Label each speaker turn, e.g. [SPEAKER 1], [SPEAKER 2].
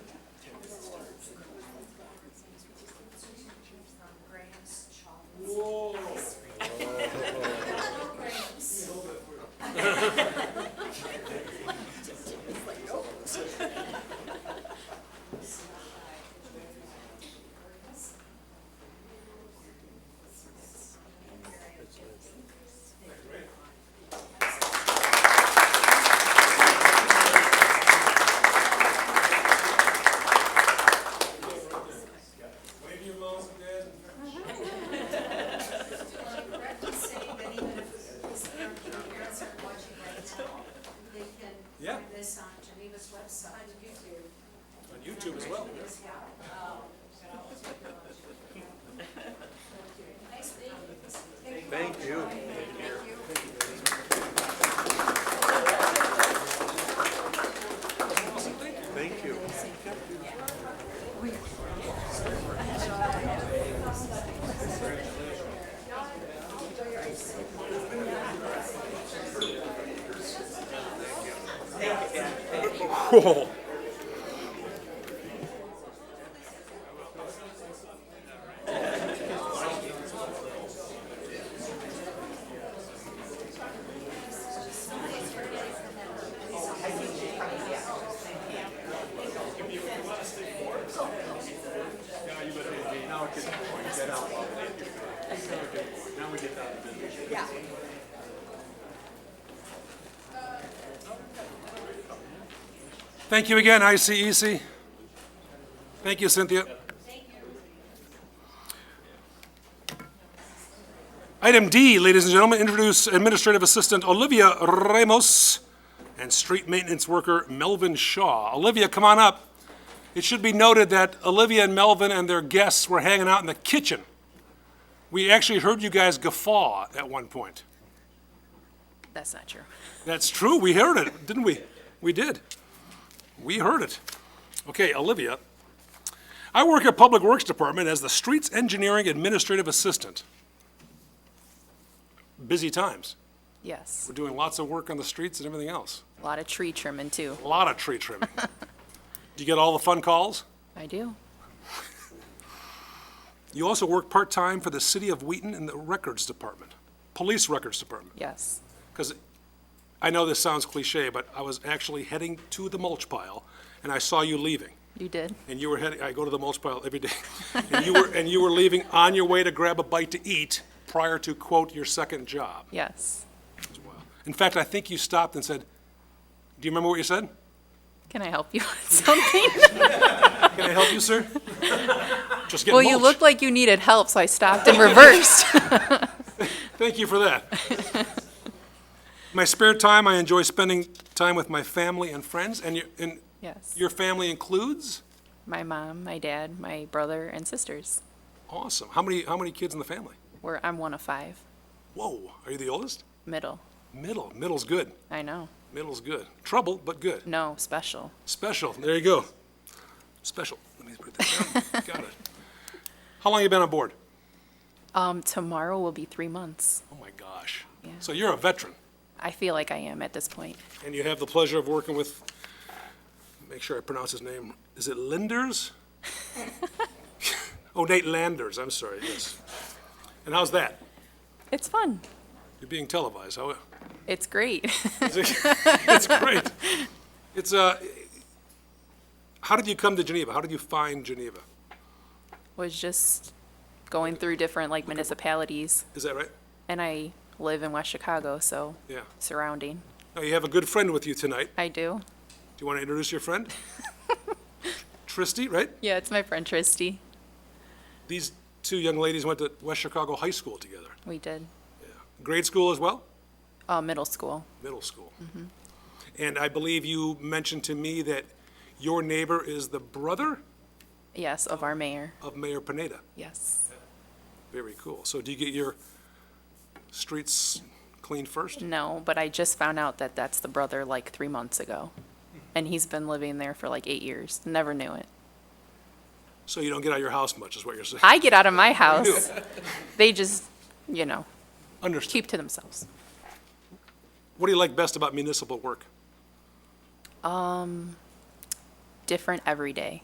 [SPEAKER 1] YouTube as well.
[SPEAKER 2] Thank you. Thank you. Whoa.
[SPEAKER 1] Thank you again, ICEC. Thank you, Cynthia. Item D, ladies and gentlemen, introduce Administrative Assistant Olivia Ramos and Street Maintenance Worker Melvin Shaw. Olivia, come on up. It should be noted that Olivia and Melvin and their guests were hanging out in the kitchen. We actually heard you guys guffaw at one point.
[SPEAKER 3] That's not true.
[SPEAKER 1] That's true. We heard it, didn't we? We did. We heard it. Okay, Olivia. I work at Public Works Department as the Streets Engineering Administrative Assistant. Busy times.
[SPEAKER 3] Yes,
[SPEAKER 1] We're doing lots of work on the streets and everything else.
[SPEAKER 3] a lot of tree trimming too.
[SPEAKER 1] A lot of tree trimming. Do you get all the fun calls?
[SPEAKER 3] I do.
[SPEAKER 1] You also work part-time for the City of Wheaton in the Records Department, Police Records Department.
[SPEAKER 3] Yes.
[SPEAKER 1] because I know this sounds cliche, but I was actually heading to the mulch pile, and I saw you leaving.
[SPEAKER 3] You did?
[SPEAKER 1] And you were heading, I go to the mulch pile every day. And you were, and you were leaving on your way to grab a bite to eat prior to, quote, your second job.
[SPEAKER 3] Yes.
[SPEAKER 1] as well. In fact, I think you stopped and said, do you remember what you said?
[SPEAKER 3] Can I help you with something?
[SPEAKER 1] Can I help you, sir? Just get
[SPEAKER 3] Well,
[SPEAKER 1] mulch.
[SPEAKER 3] you looked like you needed help, so I stopped and reversed.
[SPEAKER 1] Thank you for that. My spare time, I enjoy spending time with my family and friends, and your, and
[SPEAKER 3] Yes.
[SPEAKER 1] your family includes?
[SPEAKER 3] My mom, my dad, my brother, and sisters.
[SPEAKER 1] Awesome. How many how many kids in the family?
[SPEAKER 3] We're, I'm one of five,
[SPEAKER 1] Whoa, are you the oldest?
[SPEAKER 3] middle.
[SPEAKER 1] Middle. Middle's good.
[SPEAKER 3] I know.
[SPEAKER 1] Middle's good. Trouble, but good.
[SPEAKER 3] No, special.
[SPEAKER 1] Special. There you go. Special. Let me put that down. Got it. How long you been on board?
[SPEAKER 3] Um, tomorrow will be three months.
[SPEAKER 1] Oh my gosh.
[SPEAKER 3] Yeah.
[SPEAKER 1] So you're a veteran,
[SPEAKER 3] I feel like I am at this point.
[SPEAKER 1] and you have the pleasure of working with. Make sure I pronounce his name. Is it Linders? oh, Nate Landers. I'm sorry. Yes. And how's that?
[SPEAKER 3] It's fun.
[SPEAKER 1] You're being televised. How?
[SPEAKER 3] It's great.
[SPEAKER 1] It's great. It's uh, how did you come to Geneva? How did you find Geneva?
[SPEAKER 3] Was just going through different like municipalities,
[SPEAKER 1] Is that right?
[SPEAKER 3] and I live in West Chicago, so
[SPEAKER 1] Yeah.
[SPEAKER 3] surrounding.
[SPEAKER 1] Now, you have a good friend with you tonight.
[SPEAKER 3] I do.
[SPEAKER 1] Do you want to introduce your friend? Tristy, right?
[SPEAKER 3] Yeah, it's my friend Tristy.
[SPEAKER 1] These two young ladies went to West Chicago High School together.
[SPEAKER 3] We did
[SPEAKER 1] Grade school as well?
[SPEAKER 3] uh, middle school.
[SPEAKER 1] Middle school.
[SPEAKER 3] Mm-hmm.
[SPEAKER 1] And I believe you mentioned to me that your neighbor is the brother
[SPEAKER 3] Yes, of our mayor.
[SPEAKER 1] of Mayor Pineda.
[SPEAKER 3] Yes.
[SPEAKER 1] Very cool. So do you get your streets cleaned first?
[SPEAKER 3] No, but I just found out that that's the brother like three months ago, and he's been living there for like eight years. Never knew it.
[SPEAKER 1] So you don't get out of your house much, is what you're saying?
[SPEAKER 3] I get out of my house. They just, you know,
[SPEAKER 1] Understood.
[SPEAKER 3] keep to themselves.
[SPEAKER 1] What do you like best about municipal work?
[SPEAKER 3] Different every day.